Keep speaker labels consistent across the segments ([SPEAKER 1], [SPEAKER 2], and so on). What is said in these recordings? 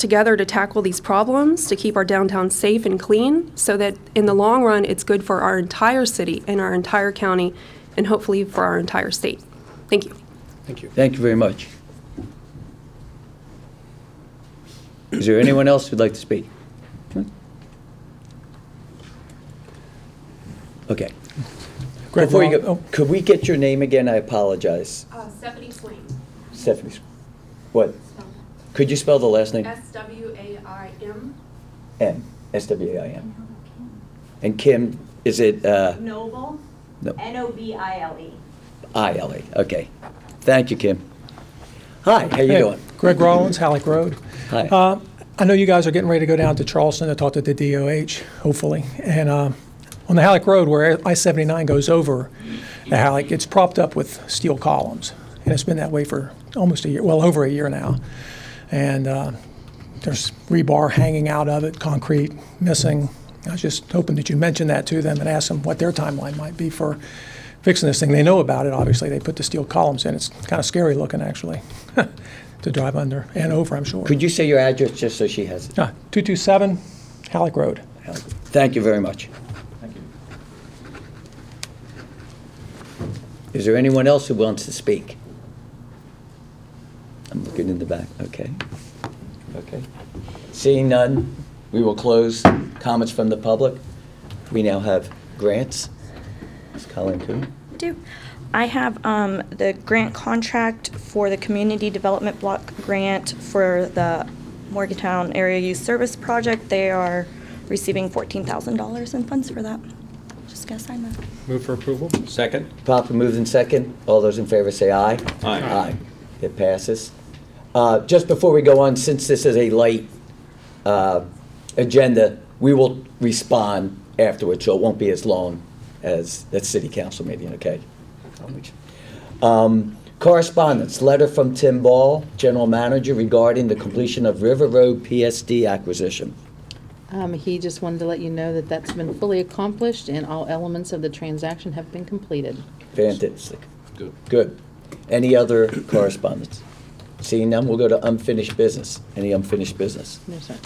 [SPEAKER 1] together to tackle these problems, to keep our downtown safe and clean, so that in the long run, it's good for our entire city and our entire county, and hopefully for our entire state. Thank you.
[SPEAKER 2] Thank you.
[SPEAKER 3] Thank you very much. Is there anyone else who'd like to speak? Hmm? Okay.
[SPEAKER 2] Greg, oh,
[SPEAKER 3] Before you
[SPEAKER 2] we're
[SPEAKER 3] go,
[SPEAKER 2] all-
[SPEAKER 3] could we get your name again? I apologize.
[SPEAKER 1] Uh, Stephanie Swain,
[SPEAKER 3] Stephanie, what? Could you spell the last name?
[SPEAKER 1] S-W-A-I-M,
[SPEAKER 3] M, S-W-A-I-M. And Kim, is it uh,
[SPEAKER 4] Noble,
[SPEAKER 3] No.
[SPEAKER 4] N-O-B-I-L-E.
[SPEAKER 3] I-L-E? Okay. Thank you, Kim. Hi, how you
[SPEAKER 2] Hey,
[SPEAKER 3] doing?
[SPEAKER 2] Greg Rollins, Halleck Road.
[SPEAKER 3] Hi.
[SPEAKER 2] Uh, I know you guys are getting ready to go down to Charleston to talk to the DOH, hopefully. And uh, on the Halleck Road where I-79 goes over the Halleck, it's propped up with steel columns. And it's been that way for almost a year, well, over a year now. And uh, there's rebar hanging out of it, concrete missing. I was just hoping that you mentioned that to them and ask them what their timeline might be for fixing this thing. They know about it, obviously. They put the steel columns in. It's kind of scary looking, actually, to drive under and over, I'm sure.
[SPEAKER 3] Could you say your address just so she has it?
[SPEAKER 2] Ah, 227 Halleck Road.
[SPEAKER 3] Thank you very much. Is there anyone else who wants to speak? I'm looking in the back, okay. Okay. Seeing none, we will close comments from the public. We now have grants. Ms. Colleen Coon.
[SPEAKER 5] I do. I have um, the grant contract for the Community Development Block Grant for the Morgantown Area Youth Service Project. They are receiving $14,000 in funds for that. Just gonna sign that.
[SPEAKER 6] Move for approval? Second.
[SPEAKER 3] Proper moved in second. All those in favor say aye.
[SPEAKER 6] Aye.
[SPEAKER 3] Aye. It passes. Uh, Just before we go on, since this is a light uh, agenda, we will respond afterwards, so it won't be as long as that city council meeting, okay? Um, Correspondence, letter from Tim Ball, general manager, regarding the completion of River Road PSD acquisition.
[SPEAKER 7] Um, He just wanted to let you know that that's been fully accomplished and all elements of the transaction have been completed.
[SPEAKER 3] Fantastic.
[SPEAKER 6] Good.
[SPEAKER 3] Good. Any other correspondence? Seeing none, we'll go to unfinished business. Any unfinished business?
[SPEAKER 7] No, sir.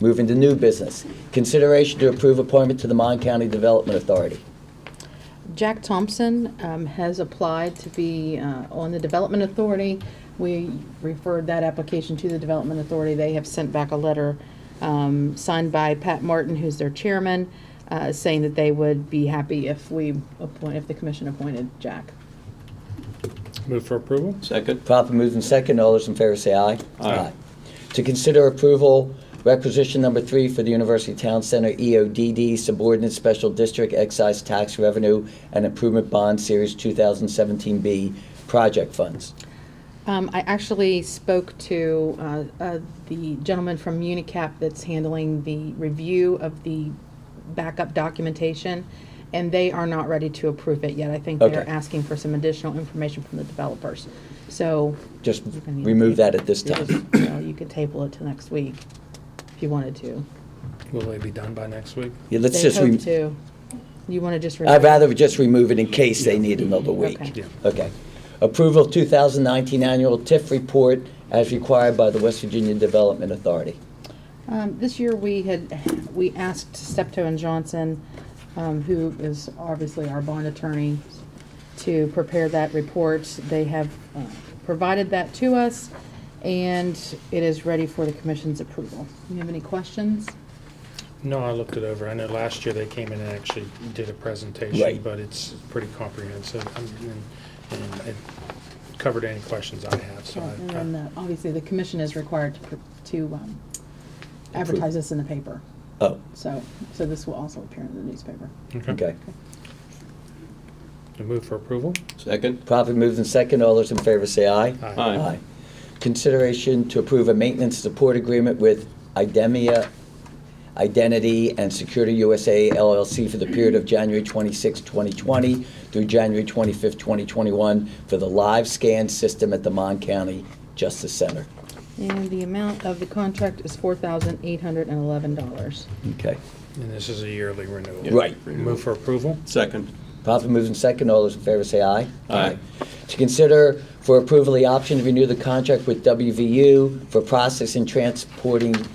[SPEAKER 3] Moving to new business. Consideration to approve appointment to the Mon County Development Authority.
[SPEAKER 7] Jack Thompson um, has applied to be uh, on the Development Authority. We referred that application to the Development Authority. They have sent back a letter um, signed by Pat Martin, who's their chairman, uh, saying that they would be happy if we appoint, if the commission appointed Jack.
[SPEAKER 6] Move for approval? Second.
[SPEAKER 3] Proper moved and second. All those in favor say aye.
[SPEAKER 6] Aye.
[SPEAKER 3] To consider approval, requisition number three for the University Town Center E EODD Subordinate Special District Excise Tax Revenue and Improvement Bond Series 2017B Project Funds.
[SPEAKER 7] Um, I actually spoke to uh, uh, the gentleman from Unicap that's handling the review of the backup documentation, and they are not ready to approve it yet. I think
[SPEAKER 3] Okay.
[SPEAKER 7] they're asking for some additional information from the developers. So.
[SPEAKER 3] Just
[SPEAKER 7] you can-
[SPEAKER 3] remove that at this
[SPEAKER 7] you
[SPEAKER 3] time.
[SPEAKER 7] just- well, You could table it to next week if you wanted to.
[SPEAKER 6] Will they be done by next week?
[SPEAKER 3] Yeah, let's
[SPEAKER 7] They
[SPEAKER 3] just.
[SPEAKER 7] hope
[SPEAKER 3] re-
[SPEAKER 7] to. You want to just.
[SPEAKER 3] I'd
[SPEAKER 7] remove-
[SPEAKER 3] rather just remove it in case they need another week.
[SPEAKER 7] Okay. Yeah.
[SPEAKER 3] Okay. Approval of 2019 annual TIF report as required by the West Virginia Development Authority.
[SPEAKER 7] Um, This year, we had, we asked Steptoe and Johnson, um, who is obviously our bond attorney, to prepare that report. They have uh, provided that to us, and it is ready for the commission's approval. You have any questions?
[SPEAKER 8] No, I looked it over. I know last year they came in and actually did a presentation,
[SPEAKER 3] Right.
[SPEAKER 8] but it's pretty comprehensive. I mean, And and it covered any questions I have, so
[SPEAKER 7] And
[SPEAKER 8] I-
[SPEAKER 7] then,
[SPEAKER 8] I,
[SPEAKER 7] uh, obviously, the commission is required to pr- to um, advertise this in the paper.
[SPEAKER 3] Oh,
[SPEAKER 7] So, so this will also appear in the newspaper.
[SPEAKER 3] okay.
[SPEAKER 8] I move for approval.
[SPEAKER 6] Second.
[SPEAKER 3] Properly moved and second. All those in favor say aye.
[SPEAKER 8] Aye.
[SPEAKER 6] Aye.
[SPEAKER 3] Consideration to approve a maintenance support agreement with Idemia Identity and Security USA LLC for the period of January 26, 2020 through January 25, 2021 for the live scan system at the Mon County Justice Center.
[SPEAKER 7] And the amount of the contract is $4,811.
[SPEAKER 3] Okay.
[SPEAKER 8] And this is a yearly renewal.
[SPEAKER 3] Right.
[SPEAKER 8] Move for approval.
[SPEAKER 6] Second.
[SPEAKER 3] Profit moves in second. All those in favor say aye.
[SPEAKER 6] Aye.
[SPEAKER 3] To consider for approval the option to renew the contract with WVU for processing transporting